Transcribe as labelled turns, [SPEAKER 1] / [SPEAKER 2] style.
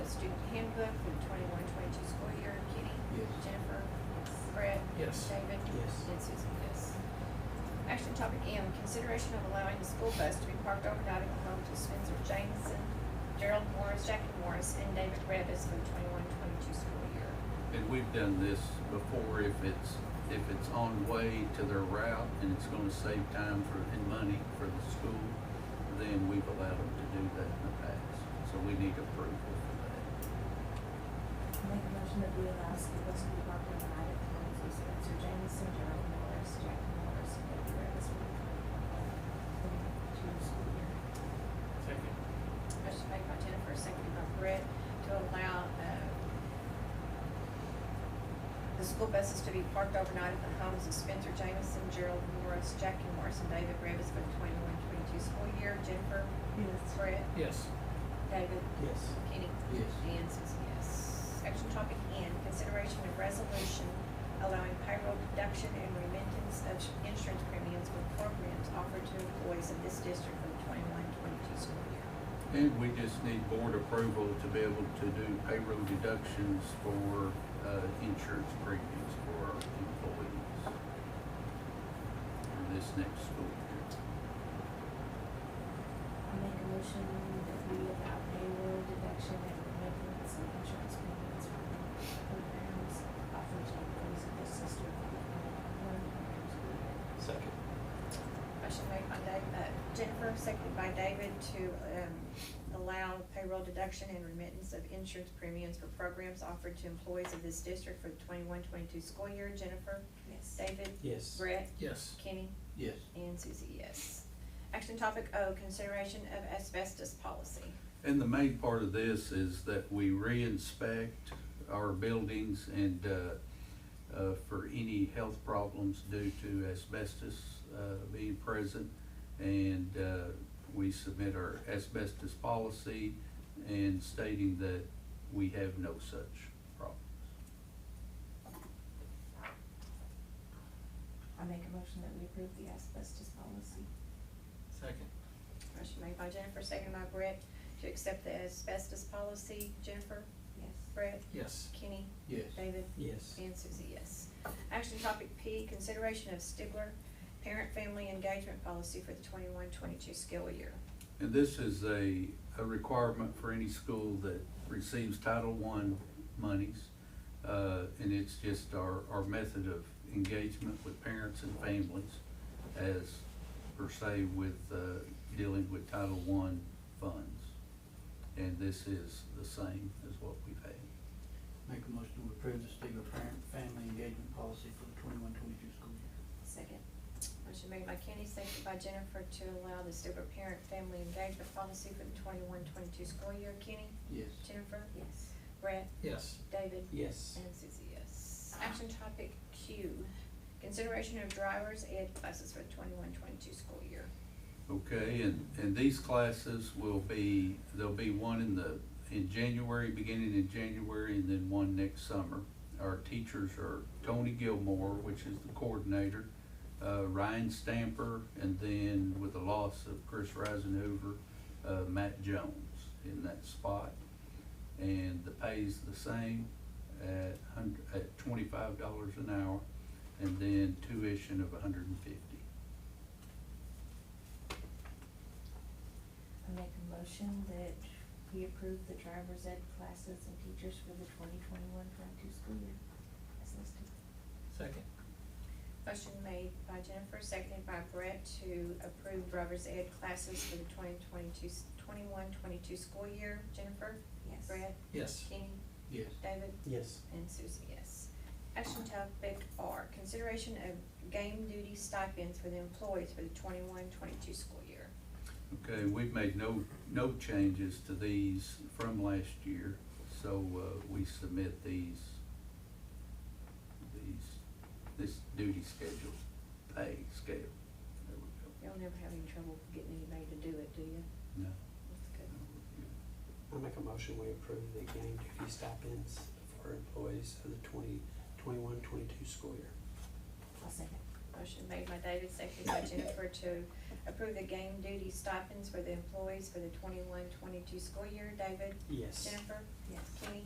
[SPEAKER 1] handbook for the twenty-one, twenty-two school year. Kenny?
[SPEAKER 2] Yes.
[SPEAKER 1] Jennifer? Brett?
[SPEAKER 3] Yes.
[SPEAKER 1] David?
[SPEAKER 2] Yes.
[SPEAKER 1] And Susie, yes. Action topic M, consideration of allowing the school bus to be parked overnight at the home to Spencer Jameson, Gerald Morris, Jackie Morris, and David Revis for the twenty-one, twenty-two school year.
[SPEAKER 4] And we've done this before, if it's, if it's on way to their route and it's gonna save time for, and money for the school, then we've allowed them to do that in the past, so we need approval for
[SPEAKER 5] Make a motion that we allow school bus to be parked on the night at the homes of Spencer Jameson, Gerald Morris, Jack Morris, and Debbie Revis for the twenty-two school year.
[SPEAKER 3] Second.
[SPEAKER 1] Motion made by Jennifer, seconded by Brett, to allow, uh, the school buses to be parked overnight at the homes of Spencer Jameson, Gerald Morris, Jackie Morris, and David Revis for the twenty-one, twenty-two school year. Jennifer?
[SPEAKER 5] Yes.
[SPEAKER 1] Brett?
[SPEAKER 3] Yes.
[SPEAKER 1] David?
[SPEAKER 2] Yes.
[SPEAKER 1] Kenny?
[SPEAKER 2] Yes.
[SPEAKER 1] And Susie, yes. Action topic N, consideration of resolution allowing payroll deduction and remittance of insurance premiums for programs offered to employees of this district for the twenty-one, twenty-two school year.
[SPEAKER 4] that. And we just need board approval to be able to do payroll deductions for, uh, insurance premiums for our employees for this next school year.
[SPEAKER 5] I make a motion that we allow payroll deduction and remittance of insurance payments from programs offered to employees of this sister company.
[SPEAKER 2] Second.
[SPEAKER 1] Motion made by Dave, uh, Jennifer, seconded by David to, um, allow payroll deduction and remittance of insurance premiums for programs offered to employees of this district for the twenty-one, twenty-two school year. Jennifer,
[SPEAKER 5] Yes.
[SPEAKER 1] David,
[SPEAKER 2] Yes.
[SPEAKER 1] Brett,
[SPEAKER 3] Yes.
[SPEAKER 1] Kenny,
[SPEAKER 2] Yes.
[SPEAKER 1] and Susie, yes. Action topic O, consideration of asbestos policy.
[SPEAKER 4] And the main part of this is that we re-inspect our buildings and, uh, uh, for any health problems due to asbestos, uh, being present. And, uh, we submit our asbestos policy and stating that we have no such problem.
[SPEAKER 5] I make a motion that we approve the asbestos policy.
[SPEAKER 3] Second.
[SPEAKER 1] Motion made by Jennifer, seconded by Brett to accept the asbestos policy. Jennifer,
[SPEAKER 5] Yes.
[SPEAKER 1] Brett,
[SPEAKER 3] Yes.
[SPEAKER 1] Kenny,
[SPEAKER 2] Yes.
[SPEAKER 1] David,
[SPEAKER 2] Yes.
[SPEAKER 1] And Susie, yes. Action topic P, consideration of Stigler parent family engagement policy for the twenty-one, twenty-two school year.
[SPEAKER 4] And this is a, a requirement for any school that receives Title I monies. Uh, and it's just our, our method of engagement with parents and families as per se with, uh, dealing with Title I funds. And this is the same as what we've had.
[SPEAKER 2] Make a motion to approve the Stigler parent family engagement policy for the twenty-one, twenty-two school year.
[SPEAKER 5] Second.
[SPEAKER 1] Motion made by Kenny, seconded by Jennifer to allow the Stigler parent family engagement policy for the twenty-one, twenty-two school year. Kenny,
[SPEAKER 2] Yes.
[SPEAKER 1] Jennifer,
[SPEAKER 5] Yes.
[SPEAKER 1] Brett,
[SPEAKER 3] Yes.
[SPEAKER 1] David,
[SPEAKER 2] Yes.
[SPEAKER 1] and Susie, yes. Action topic Q, consideration of driver's ed classes for the twenty-one, twenty-two school year.
[SPEAKER 4] Okay, and, and these classes will be, there'll be one in the, in January, beginning in January, and then one next summer. Our teachers are Tony Gilmore, which is the coordinator, uh, Ryan Stamper, and then with the loss of Chris Risenhoover, uh, Matt Jones in that spot. And the pay's the same at hun- at twenty-five dollars an hour, and then tuition of a hundred and fifty.
[SPEAKER 5] I make a motion that we approve the driver's ed classes and teachers for the twenty twenty-one, twenty-two school year as listed.
[SPEAKER 3] Second.
[SPEAKER 1] Motion made by Jennifer, seconded by Brett to approve driver's ed classes for the 2022 21, 22 school year. Jennifer,
[SPEAKER 5] Yes.
[SPEAKER 1] Brett,
[SPEAKER 3] Yes.
[SPEAKER 1] Kenny,
[SPEAKER 2] Yes.
[SPEAKER 1] David,
[SPEAKER 2] Yes.
[SPEAKER 1] and Susie, yes. Action topic R, consideration of game duty stipends for the employees for the 21, 22 school year.
[SPEAKER 4] Okay, we've made no, no changes to these from last year, so, uh, we submit these, these, this duty schedule, pay scale. There we
[SPEAKER 1] Y'all never have any trouble getting anybody to do it, do you?
[SPEAKER 4] go. No.
[SPEAKER 1] That's good.
[SPEAKER 6] I make a motion, we approve the game duty stipends for employees of the twenty, twenty-one, twenty-two school year.
[SPEAKER 5] I'll second.
[SPEAKER 1] Motion made by David, seconded by Jennifer to approve the game duty stipends for the employees for the 21, 22 school year. David,
[SPEAKER 2] Yes.
[SPEAKER 1] Jennifer,